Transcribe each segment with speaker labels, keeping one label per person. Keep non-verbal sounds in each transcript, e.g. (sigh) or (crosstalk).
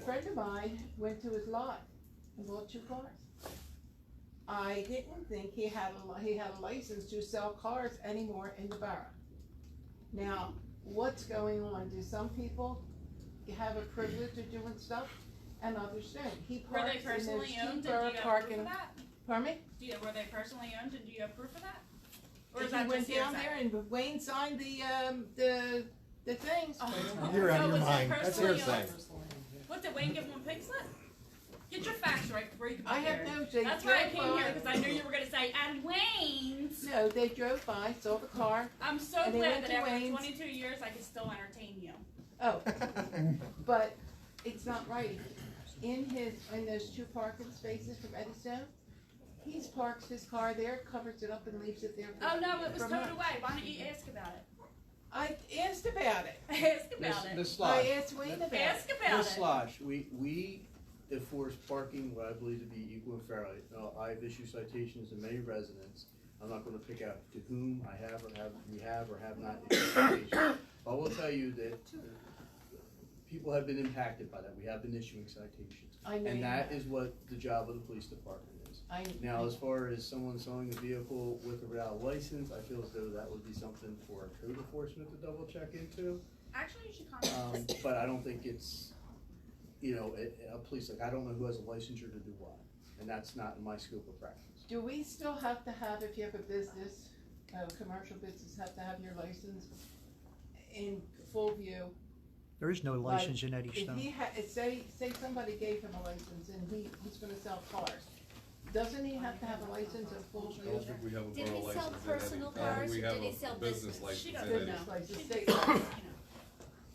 Speaker 1: friend of mine went to his lot and bought two cars. I didn't think he had a, li- he had a license to sell cars anymore in the borough. Now, what's going on? Do some people have a privilege of doing stuff and others don't? He
Speaker 2: Were they
Speaker 1: parks in his
Speaker 2: personally owned
Speaker 1: cheap
Speaker 2: and do you
Speaker 1: borough
Speaker 2: have proof
Speaker 1: parking.
Speaker 2: of that?
Speaker 1: Pardon me?
Speaker 2: Do you, were they personally owned and do you have proof of that? Or
Speaker 1: He
Speaker 2: is that
Speaker 1: went
Speaker 2: just
Speaker 1: down
Speaker 2: hearsay?
Speaker 1: there and Wayne signed the, um, the, the things.
Speaker 2: (laughs) Oh.
Speaker 3: You're out
Speaker 2: So
Speaker 3: of your
Speaker 2: was it
Speaker 3: mind. That's
Speaker 2: personally
Speaker 3: hearsay.
Speaker 2: owned? What, did Wayne give one pig slip? Get your facts right before you come
Speaker 1: I
Speaker 2: up
Speaker 1: have
Speaker 2: here.
Speaker 1: no, they
Speaker 2: That's why I
Speaker 1: drove
Speaker 2: came here,
Speaker 1: by,
Speaker 2: because I knew you were gonna say, and Wayne's.
Speaker 1: no, they drove by, saw the car,
Speaker 2: I'm so
Speaker 1: And they went
Speaker 2: glad that
Speaker 1: to
Speaker 2: after
Speaker 1: Wayne's.
Speaker 2: twenty-two years, I can still entertain you.
Speaker 1: oh, but it's not right. In his, in those two parking spaces from Eddystone, he's parks his car there, covers it up and leaves it there. for-
Speaker 2: Oh, no, it was
Speaker 1: for
Speaker 2: towed
Speaker 1: months.
Speaker 2: away. Why don't you ask about it? (laughs)
Speaker 1: I asked about it.
Speaker 2: Ask
Speaker 4: Miss,
Speaker 2: about it.
Speaker 4: Miss
Speaker 1: I
Speaker 4: Lodge,
Speaker 1: asked Wayne about it.
Speaker 2: Ask about
Speaker 4: Miss
Speaker 2: it.
Speaker 4: Lodge, we, we enforce parking what I believe to be equal and fairly. Now, I've issued citations to many residents. I'm not gonna pick out to whom I have or have, we have or have not issued citations. I will tell you that people have been impacted by that. We have been issuing citations.
Speaker 1: I know you
Speaker 4: And that
Speaker 1: have.
Speaker 4: is what the job of the police department is.
Speaker 1: I,
Speaker 4: Now, as far as someone selling a vehicle with or without a license, I feel as though that would be something for code enforcement to double check into.
Speaker 2: Actually, you should contact
Speaker 4: (coughs) Um, but I don't think it's, you know, a, a police, like, I don't know who has a licensure to do what. And that's not in my scope of practice.
Speaker 1: do we still have to have, if you have a business, a commercial business, have to have your license in full view?
Speaker 5: (laughs) There is no
Speaker 1: Like,
Speaker 5: license in Eddie
Speaker 1: If
Speaker 5: Stone.
Speaker 1: he had, say, say somebody gave him a license and he, he's gonna sell cars, doesn't he have to have a license and full
Speaker 6: I don't
Speaker 1: view?
Speaker 6: think we have a
Speaker 7: Did
Speaker 6: borough
Speaker 7: he sell
Speaker 6: license in
Speaker 7: personal
Speaker 6: any- I
Speaker 7: cars
Speaker 6: think
Speaker 7: or
Speaker 6: we have
Speaker 7: did he
Speaker 6: a
Speaker 7: sell
Speaker 6: business
Speaker 7: business?
Speaker 6: license
Speaker 2: She
Speaker 6: in
Speaker 2: doesn't
Speaker 6: any-
Speaker 2: know.
Speaker 1: Business
Speaker 2: She
Speaker 1: license,
Speaker 2: did-
Speaker 1: state
Speaker 2: you know.
Speaker 1: license.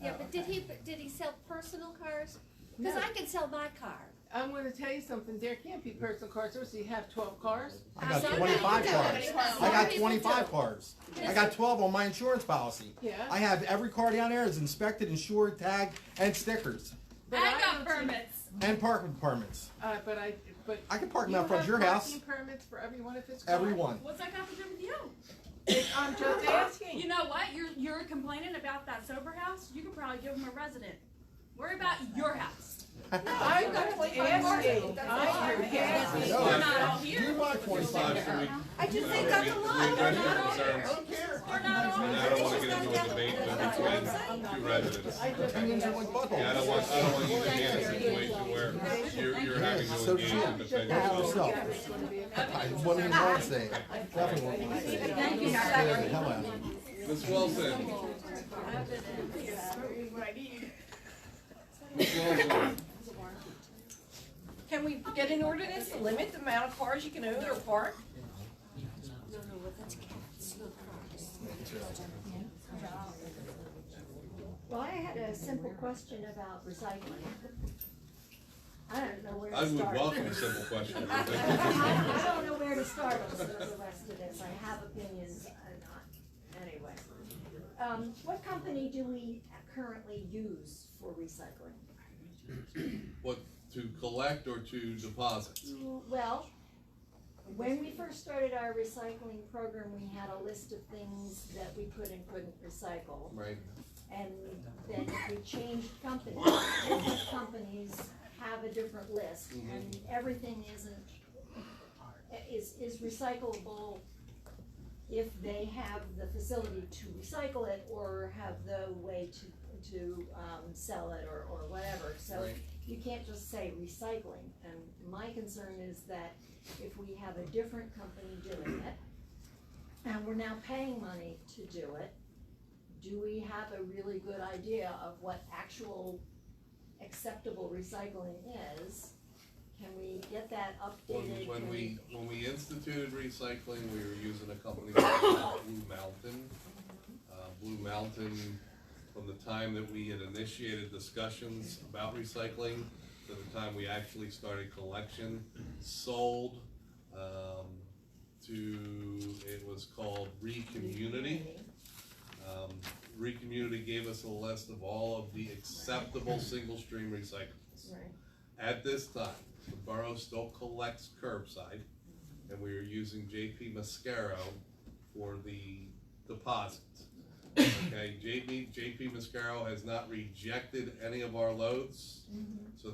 Speaker 7: Yeah,
Speaker 1: Oh,
Speaker 7: but did
Speaker 1: okay.
Speaker 7: he, did he sell personal cars?
Speaker 1: No,
Speaker 7: Cause I can sell my car.
Speaker 1: I'm gonna tell you something, there can't be personal cars, so does he have twelve cars?
Speaker 3: I got
Speaker 7: Some people
Speaker 3: 25
Speaker 7: do,
Speaker 3: cars.
Speaker 7: but
Speaker 3: I
Speaker 7: some
Speaker 3: got
Speaker 7: people
Speaker 3: twenty-five
Speaker 7: do.
Speaker 3: cars. I got twelve on my insurance policy.
Speaker 1: Yeah.
Speaker 3: I have every car down there is inspected, insured, tagged, and stickers,
Speaker 1: but
Speaker 2: I
Speaker 1: don't
Speaker 2: got
Speaker 1: see-
Speaker 2: permits.
Speaker 3: and parking permits.
Speaker 1: Uh, but I, but.
Speaker 3: I can park them
Speaker 1: you
Speaker 3: out front of
Speaker 1: have
Speaker 3: your house,
Speaker 1: parking Permits for every one of his cars?
Speaker 3: every one. (laughs)
Speaker 2: What's that got to do with you?
Speaker 1: I'm just
Speaker 2: You
Speaker 1: asking,
Speaker 2: know what? You're, you're complaining about that sober house. You could probably give them a resident. Worry about your house.
Speaker 1: I'm gonna ask you, I am asking.
Speaker 3: No,
Speaker 2: We're not all here.
Speaker 3: You want
Speaker 6: Lodge,
Speaker 3: twenty-five?
Speaker 6: do we-
Speaker 7: I just
Speaker 6: No,
Speaker 7: think
Speaker 6: we-
Speaker 7: that's a
Speaker 6: we-
Speaker 7: lot.
Speaker 6: we-
Speaker 2: They're
Speaker 6: we-
Speaker 2: not all
Speaker 6: we-
Speaker 2: here.
Speaker 3: I don't care.
Speaker 2: We're not all
Speaker 6: And I don't
Speaker 2: here.
Speaker 6: wanna get into a debate
Speaker 7: That's what I'm saying.
Speaker 6: between two residents.
Speaker 1: I just.
Speaker 3: And there's one buckle.
Speaker 6: Yeah, I don't want, I don't want you to be in a situation where you're, you're having to
Speaker 3: So
Speaker 6: engage in
Speaker 3: should
Speaker 6: defending
Speaker 3: I.
Speaker 6: yourself.
Speaker 3: yourself. I wouldn't even want to say it. Definitely wouldn't want to say it. Scared the hell out of me.
Speaker 6: Ms. Wilson, Ms. Wilson,
Speaker 8: Can we get an ordinance to limit the amount of cars you can own or park?
Speaker 7: No, no, well, that's cats, not cars.
Speaker 9: Well, I had a simple question about recycling. I don't know where
Speaker 6: I
Speaker 9: to
Speaker 6: would
Speaker 9: start.
Speaker 6: welcome a simple question.
Speaker 9: (laughs) I, I don't know where to start with the rest of this, I have opinions, I'm not, anyway. Um, what company do we currently use for recycling?
Speaker 6: What, to collect or to deposit?
Speaker 9: Well, when we first started our recycling program, we had a list of things that we could and couldn't recycle.
Speaker 6: Right.
Speaker 9: and then we changed companies, different companies have a different list, and everything isn't, is, is recyclable if they have the facility to recycle it, or have the way to, to, um, sell it, or, or whatever, so
Speaker 6: Right.
Speaker 9: you can't just say recycling, and my concern is that if we have a different company doing it, and we're now paying money to do it, do we have a really good idea of what actual acceptable recycling is? Can we get that updated?
Speaker 6: When, when
Speaker 9: Can
Speaker 6: we, when we instituted recycling, we were using a company called Blue Mountain. Uh, Blue Mountain, from the time that we had initiated discussions about recycling to the time we actually started collection, sold, um, to, it was called Recommunity. Um, Recommunity gave us a list of all of the acceptable single stream recyclables.
Speaker 9: Right.
Speaker 6: At this time, the borough still collects curbside, and we are using JP Mascaro for the deposits.
Speaker 9: Mm-hmm.
Speaker 6: Okay, JP, JP Mascaro has not rejected any of our loads, so